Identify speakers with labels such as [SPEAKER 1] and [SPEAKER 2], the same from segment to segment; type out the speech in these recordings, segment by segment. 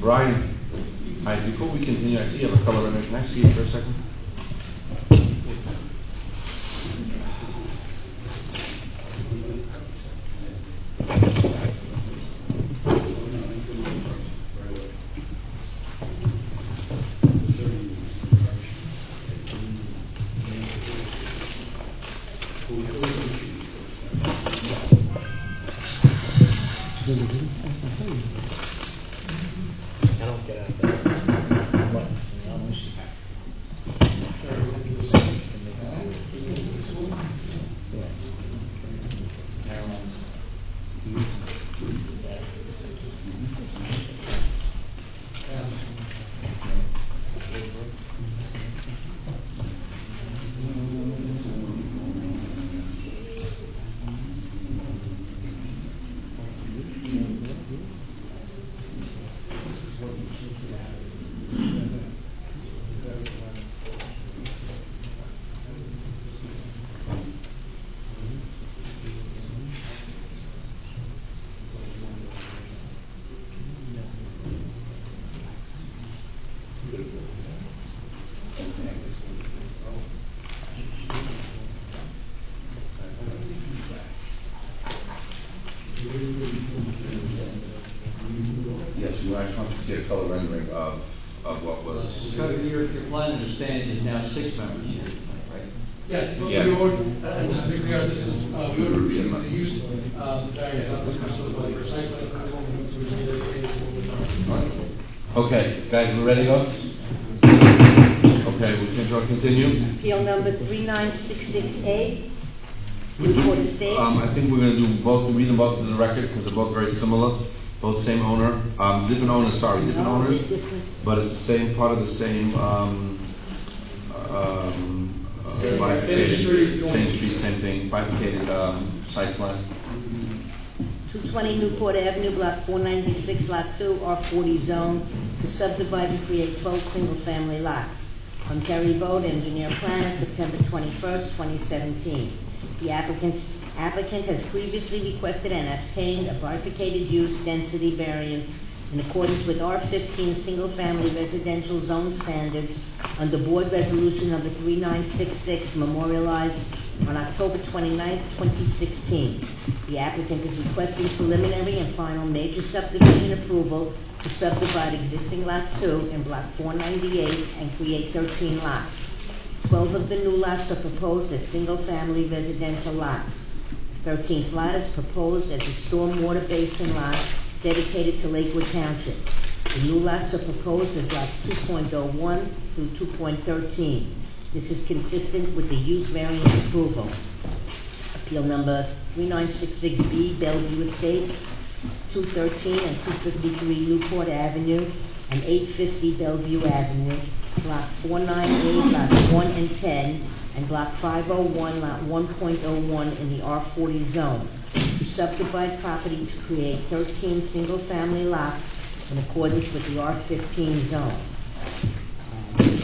[SPEAKER 1] Brian, I, before we continue, I see you have a color rendering, can I see it for a second?
[SPEAKER 2] I don't get out of bed. What?
[SPEAKER 1] Yes, you I just want to see a color rendering of, of what was.
[SPEAKER 3] So your, your plan understands is now six members here, right?
[SPEAKER 4] Yes, but we
[SPEAKER 1] Yeah.
[SPEAKER 4] ordered, uh, just to be clear, this is, uh, we ordered recently the use, uh, variance, not the special, but the site plan approval, which we did, it is what we're talking about.
[SPEAKER 1] Okay, guys, we ready to go? Okay, we can draw continue?
[SPEAKER 5] Appeal number 3966A, Newport Estates.
[SPEAKER 1] Um, I think we're gonna do both, read them both to the record, because they're both very similar, both same owner, um, different owners, sorry, different
[SPEAKER 5] No,
[SPEAKER 1] owners,
[SPEAKER 5] different.
[SPEAKER 1] but it's the same, part of the same, um, um, uh,
[SPEAKER 4] Same- same
[SPEAKER 1] bifurcated-
[SPEAKER 4] street,
[SPEAKER 1] Same
[SPEAKER 4] joint.
[SPEAKER 1] street, same thing, bifurcated, um, site plan.
[SPEAKER 5] 220 Newport Avenue, Block 496, Lot 2, R40 Zone, to subdivide and create 12 single-family lots. From Terry Bode, engineer planner, September 21st, 2017. The applicant's, applicant has previously requested and obtained a bifurcated use density variance in accordance with R15 Single Family Residential Zone Standards under Board Resolution Number 3966 memorialized on October 29, 2016. The applicant is requesting preliminary and final major subdivision approval to subdivide existing Lot 2 in Block 498 and create 13 lots. 12 of the new lots are proposed as single-family residential lots. The 13th lot is proposed as a stormwater basin lot dedicated to Lakewood Township. The new lots are proposed as lots 2.01 through 2.13. This is consistent with the use variance approval. Appeal number 3966B, Bellevue Estates, 213 and 253 Newport Avenue, and 850 Bellevue Avenue, Block 498, Lots 1 and 10, and Block 501, Lot 1.01 in the R40 zone, to subdivide property to create 13 single-family lots in accordance with the R15 zone. Um,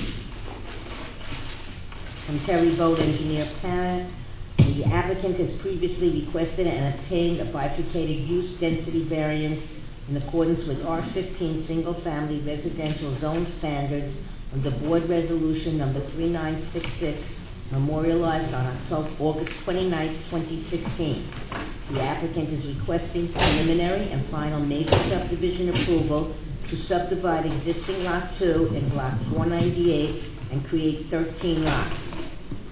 [SPEAKER 5] from Terry Vogt, engineer planner. The applicant has previously requested and obtained a bifurcated use density variance in accordance with R fifteen Single Family Residential Zone Standards under Board Resolution Number three nine six six memorialized on October, August 29, sixteen. The applicant is requesting preliminary and final major subdivision approval to subdivide existing Lot 2 in Block 498 and create 13 lots.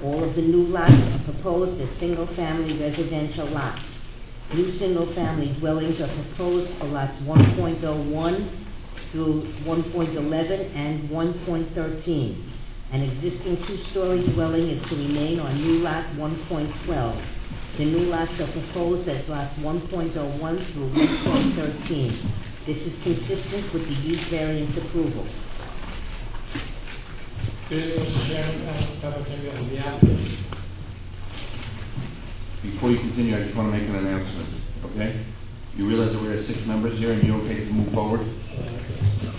[SPEAKER 5] All of the new lots are proposed as single-family residential lots. New single-family dwellings are proposed for lots 1.01 through 1.11 and 1.13. An existing two-story dwelling is to remain on new lot 1.12. The new lots are proposed as lots 1.01 through 1.13. This is consistent with the use variance approval.
[SPEAKER 4] Good evening, Mr. Chairman, uh, Kevin Campbell, the applicant.
[SPEAKER 1] Before you continue, I just wanna make an announcement, okay? You realize that we're at six members here, and you're okay to move forward?
[SPEAKER 4] Uh,